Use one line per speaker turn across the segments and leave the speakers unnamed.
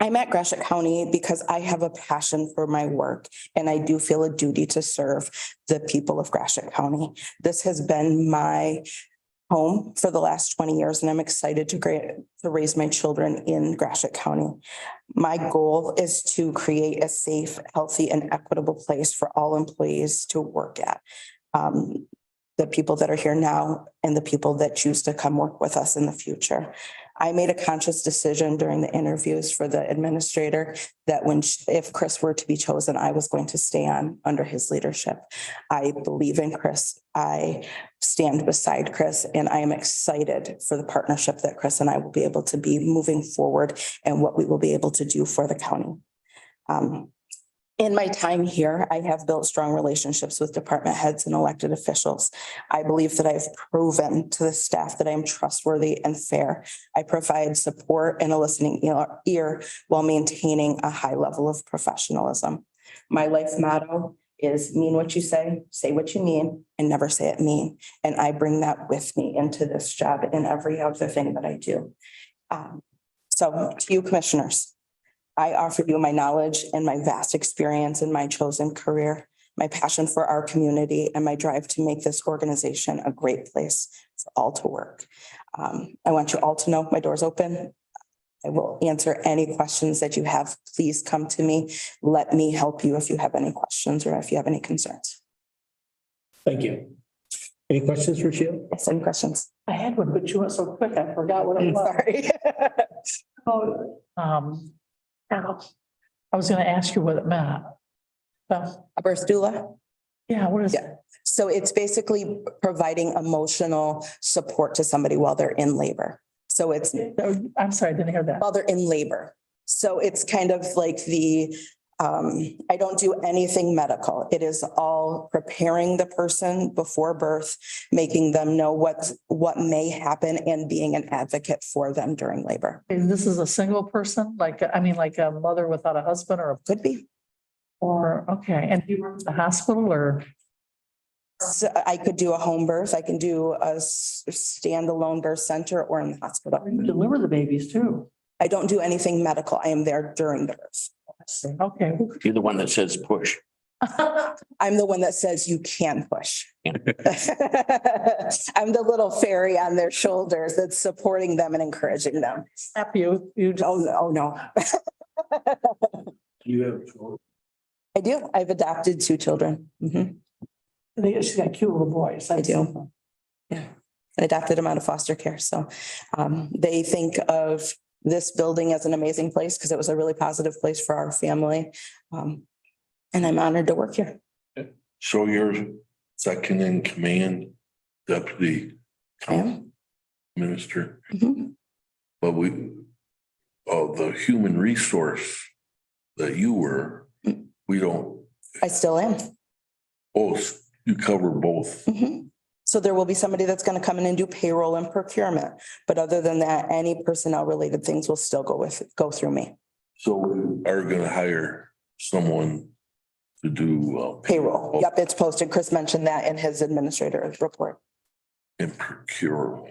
I'm at Gratiot County because I have a passion for my work and I do feel a duty to serve the people of Gratiot County. This has been my home for the last twenty years and I'm excited to gra- to raise my children in Gratiot County. My goal is to create a safe, healthy and equitable place for all employees to work at. Um, the people that are here now and the people that choose to come work with us in the future. I made a conscious decision during the interviews for the administrator that when, sh- if Chris were to be chosen, I was going to stay on under his leadership. I believe in Chris. I stand beside Chris and I am excited for the partnership that Chris and I will be able to be moving forward and what we will be able to do for the county. Um, in my time here, I have built strong relationships with department heads and elected officials. I believe that I've proven to the staff that I am trustworthy and fair. I provide support and a listening ear- ear while maintaining a high level of professionalism. My life motto is mean what you say, say what you mean, and never say it mean. And I bring that with me into this job and every other thing that I do. Um, So to you commissioners, I offer you my knowledge and my vast experience in my chosen career, my passion for our community, and my drive to make this organization a great place for all to work. Um, I want you all to know my door's open. I will answer any questions that you have. Please come to me. Let me help you if you have any questions or if you have any concerns.
Thank you. Any questions for Sheila?
Yes, any questions?
I had one, but you went so quick, I forgot what it was.
Sorry.
Oh, Um, ow. I was gonna ask you what it meant. Well,
A birth doula.
yeah, what is it?
So it's basically providing emotional support to somebody while they're in labor. So it's
Oh, I'm sorry, I didn't hear that.
while they're in labor. So it's kind of like the, um, I don't do anything medical. It is all preparing the person before birth, making them know what's, what may happen and being an advocate for them during labor.
And This is a single person, like, I mean, like a mother without a husband or, a
Could be.
or, okay, and you work at the hospital or?
So I could do a home birth. I can do a s- standalone birth center or in the hospital.
You deliver the babies too.
I don't do anything medical. I am there during the birth.
Okay.
You're the one that says push.
I'm the one that says you can push. I'm the little fairy on their shoulders that's supporting them and encouraging them.
Snap you, you just,
Oh, no, oh, no.
You have.
I do. I've adopted two children. Mhm.
they- she's got cute little boys.
I do. Yeah. I adopted them out of foster care. So um, they think of this building as an amazing place because it was a really positive place for our family. Um, And I'm honored to work here.
So you're second in command deputy
I am.
minister,
Mhm.
but we, of the human resource that you were,
Mm.
we don't,
I still am.
both, you cover both.
Mhm. So there will be somebody that's gonna come in and do payroll and procurement, but other than that, any personnel related things will still go with, go through me.
So we are gonna hire someone to do. uh,
Payroll, yep, it's posted. Chris mentioned that in his administrator's report,
And procure.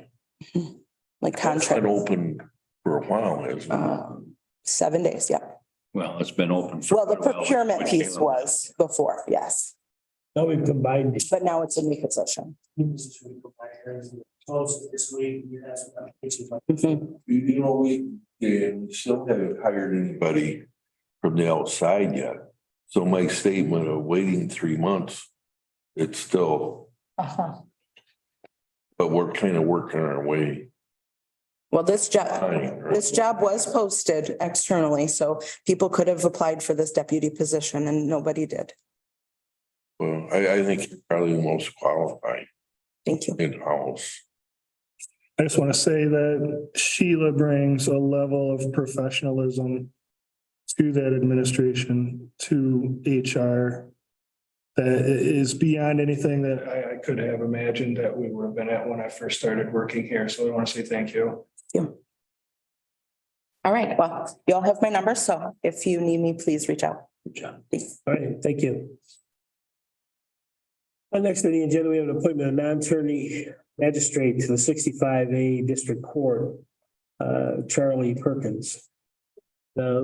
like
That's been
contract,
open for a while, hasn't it?
um, seven days, yep.
Well, it's been open. for
Well, the
quite a while.
procurement piece was before, yes,
Now we've combined these.
but now it's a new position.
Close this week. you have some applications like-
Mhm.
You, you know, we, yeah, we still haven't hired anybody from the outside yet. So my statement of waiting three months, it's still,
Uh-huh.
but we're kind of working our way.
Well, this job,
behind, right?
this job was posted externally, so people could have applied for this deputy position and nobody did.
Well, I, I think you're probably the most qualified
Thank you.
in-house.
I just want to say that Sheila brings a level of professionalism to that administration, to HR. That i- is beyond anything that I, I could have imagined that we would have been at when I first started working here. So I want to say thank you.
All right, well, you all have my number, so if you need me, please reach out.
Good job.
Please.
All right, thank you. Our next meeting agenda, we have an appointment of non-attorney magistrate to the sixty-five A District Court, uh, Charlie Perkins. Uh,